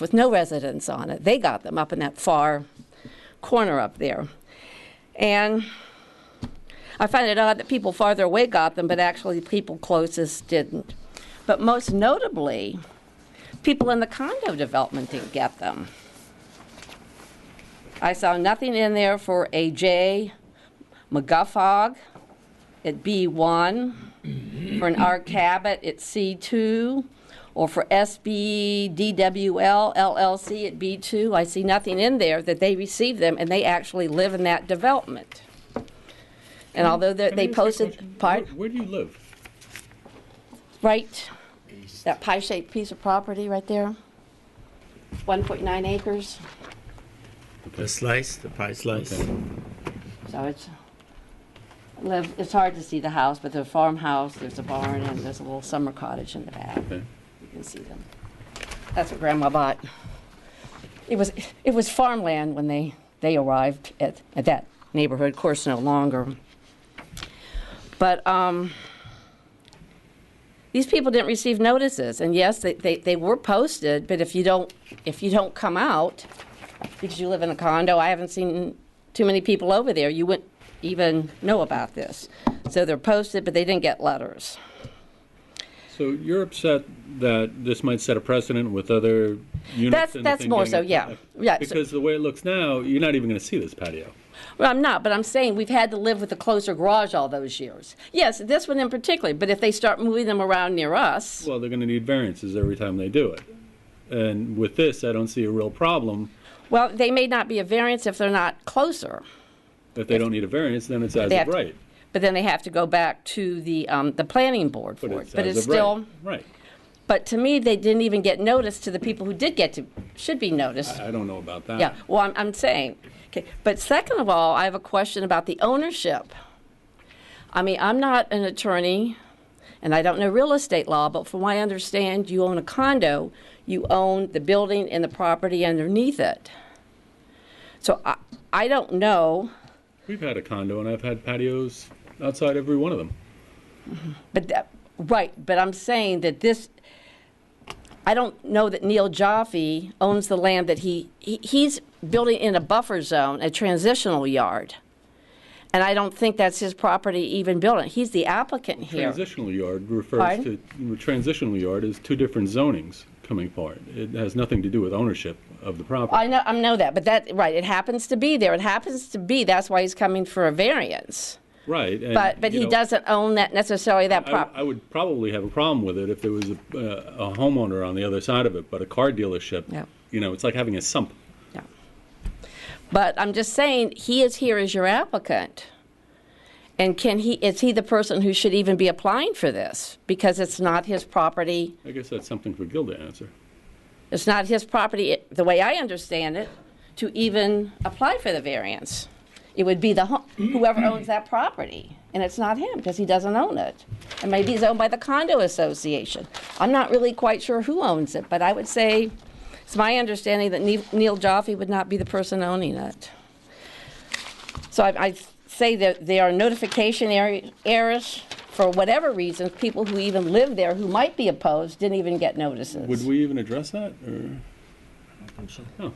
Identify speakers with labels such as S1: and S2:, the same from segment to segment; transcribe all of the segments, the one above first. S1: with no residents on it. They got them up in that far corner up there. And I find it odd that people farther away got them, but actually people closest didn't. But most notably, people in the condo development didn't get them. I saw nothing in there for AJ McGuffog at B1, for an R Cabot at C2, or for SB DWL LLC at B2. I see nothing in there that they received them and they actually live in that development. And although they
S2: Can I
S1: they
S2: ask you a
S1: posted,
S2: question?
S1: part,
S2: Where- Where do you live?
S1: right, that pie-shaped piece of property right there, 1.9 acres.
S3: The slice, the pie slice.
S1: So it's, live, it's hard to see the house, but there's a farmhouse, there's a barn, and there's a little summer cottage in the back. You can see them. That's what Grandma bought. It was, it was farmland when they, they arrived at, at that neighborhood, of course, no longer. But, um, these people didn't receive notices, and yes, they, they, they were posted, but if you don't, if you don't come out, because you live in a condo, I haven't seen too many people over there. You wouldn't even know about this. So they're posted, but they didn't get letters.
S2: So you're upset that this might set a precedent with other units?
S1: That's-
S2: and the
S1: that's
S2: thing
S1: more
S2: getting
S1: so, yeah.
S2: applied?
S1: Yeah, so-
S2: Because the way it looks now, you're not even going to see this patio.
S1: Well, I'm not, but I'm saying we've had to live with a closer garage all those years. Yes, this one in particular, but if they start moving them around near us,
S2: Well, they're going to need variances every time they do it. And with this, I don't see a real problem.
S1: well, they may not be a variance if they're not closer.
S2: If they don't need a variance, then it's as
S1: They
S2: of
S1: have to-
S2: right.
S1: But then they have to go back to the, um, the planning board for it. But
S2: as
S1: it's
S2: of right.
S1: still,
S2: Right.
S1: but to me, they didn't even get notice to the people who did get to, should be noticed.
S2: I don't know about that.
S1: Yeah, well, I'm, I'm saying, okay, but second of all, I have a question about the ownership. I mean, I'm not an attorney, and I don't know real estate law, but from what I understand, you own a condo, you own the building and the property underneath it. So I, I don't know,
S2: We've had a condo, and I've had patios outside every one of them.
S1: but that, right, but I'm saying that this, I don't know that Neil Jaffe owns the land that he, he he's building in a buffer zone, a transitional yard. And I don't think that's his property even building. He's the applicant here.
S2: Transitional yard refers to,
S1: Pardon?
S2: transitional yard is two different zonings coming forward. It has nothing to do with ownership of the property.
S1: I know, I know that, but that, right, it happens to be there. It happens to be, that's why he's coming for a variance.
S2: Right. and,
S1: But, but
S2: you
S1: he
S2: know,
S1: doesn't own that necessarily that
S2: I
S1: prop.
S2: I would probably have a problem with it if there was a uh, a homeowner on the other side of it, but a car
S1: Yeah.
S2: dealership, you know, it's like having a sump.
S1: Yeah. But I'm just saying, he is here as your applicant. And can he, is he the person who should even be applying for this? Because it's not his property,
S2: I guess that's something for Gil to answer.
S1: it's not his property, the way I understand it, to even apply for the variance. It would be the, ho- whoever owns that property, and it's not him, because he doesn't own it. And maybe it's owned by the condo association. I'm not really quite sure who owns it, but I would say, it's my understanding that Ne- Neil Jaffe would not be the person owning it. So I, I say that there are notification er- errors, for whatever reasons, people who even live there who might be opposed didn't even get notices.
S2: Would we even address that, or? No.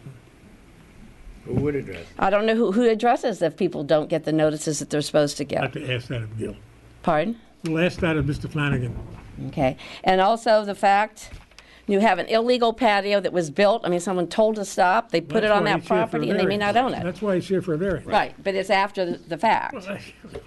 S3: Who would address?
S1: I don't know who, who addresses if people don't get the notices that they're supposed to
S4: I'd
S1: get.
S4: have to ask that of Gil.
S1: Pardon?
S4: The last that of Mr. Flanagan.
S1: Okay. And also the fact you have an illegal patio that was built. I mean, someone told to stop. They put it
S4: That's
S1: on
S4: why
S1: that
S4: he's here for a
S1: property and they may not
S4: variance.
S1: own it.
S4: That's why he's here for a variance.
S1: Right. But it's after the- the fact. Uh,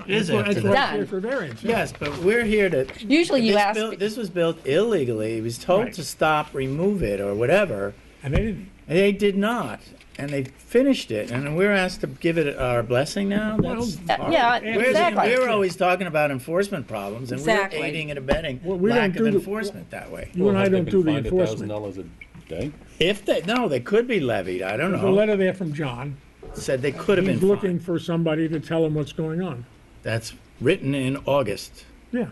S3: It is
S4: That's why
S3: after
S4: he's
S3: that.
S4: here for a variance. yeah.
S3: Yes, but we're here to.
S1: Usually you
S3: This
S1: ask-
S3: built- This was built illegally. It was told
S4: Right.
S3: to stop, remove it, or whatever.
S4: And they didn't.
S3: And they did not. And they finished it. And we're asked to give it our blessing now? That's
S1: Uh,
S3: hard.
S1: yeah,
S3: We're-
S1: exactly.
S3: We're always talking about enforcement problems, and we're
S1: Exactly.
S3: aiding and abetting
S4: Well, we
S3: lack
S4: don't do
S3: of
S4: the-
S3: enforcement that way.
S4: You and I don't do the
S2: Thousand
S4: enforcement.
S2: dollars a day?
S3: If they, no, they could be levied. I don't
S4: There's a
S3: know.
S4: letter there from John.
S3: Said they could have been
S4: He's looking
S3: fined.
S4: for somebody to tell him what's going on.
S3: That's written in August.
S4: Yeah,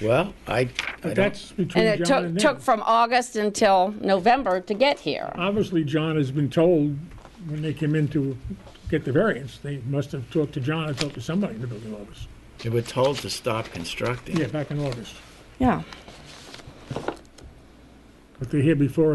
S3: Well, I, I
S4: but
S3: don't
S4: that's between
S1: And it
S4: John
S1: took,
S4: and
S1: took
S4: them.
S1: from August until November to get here.
S4: Obviously, John has been told when they came in to get the variance, they must have talked to John or talked to somebody in the building office.
S3: They were told to stop constructing.
S4: Yeah, back in August.
S1: Yeah.
S4: But they're here before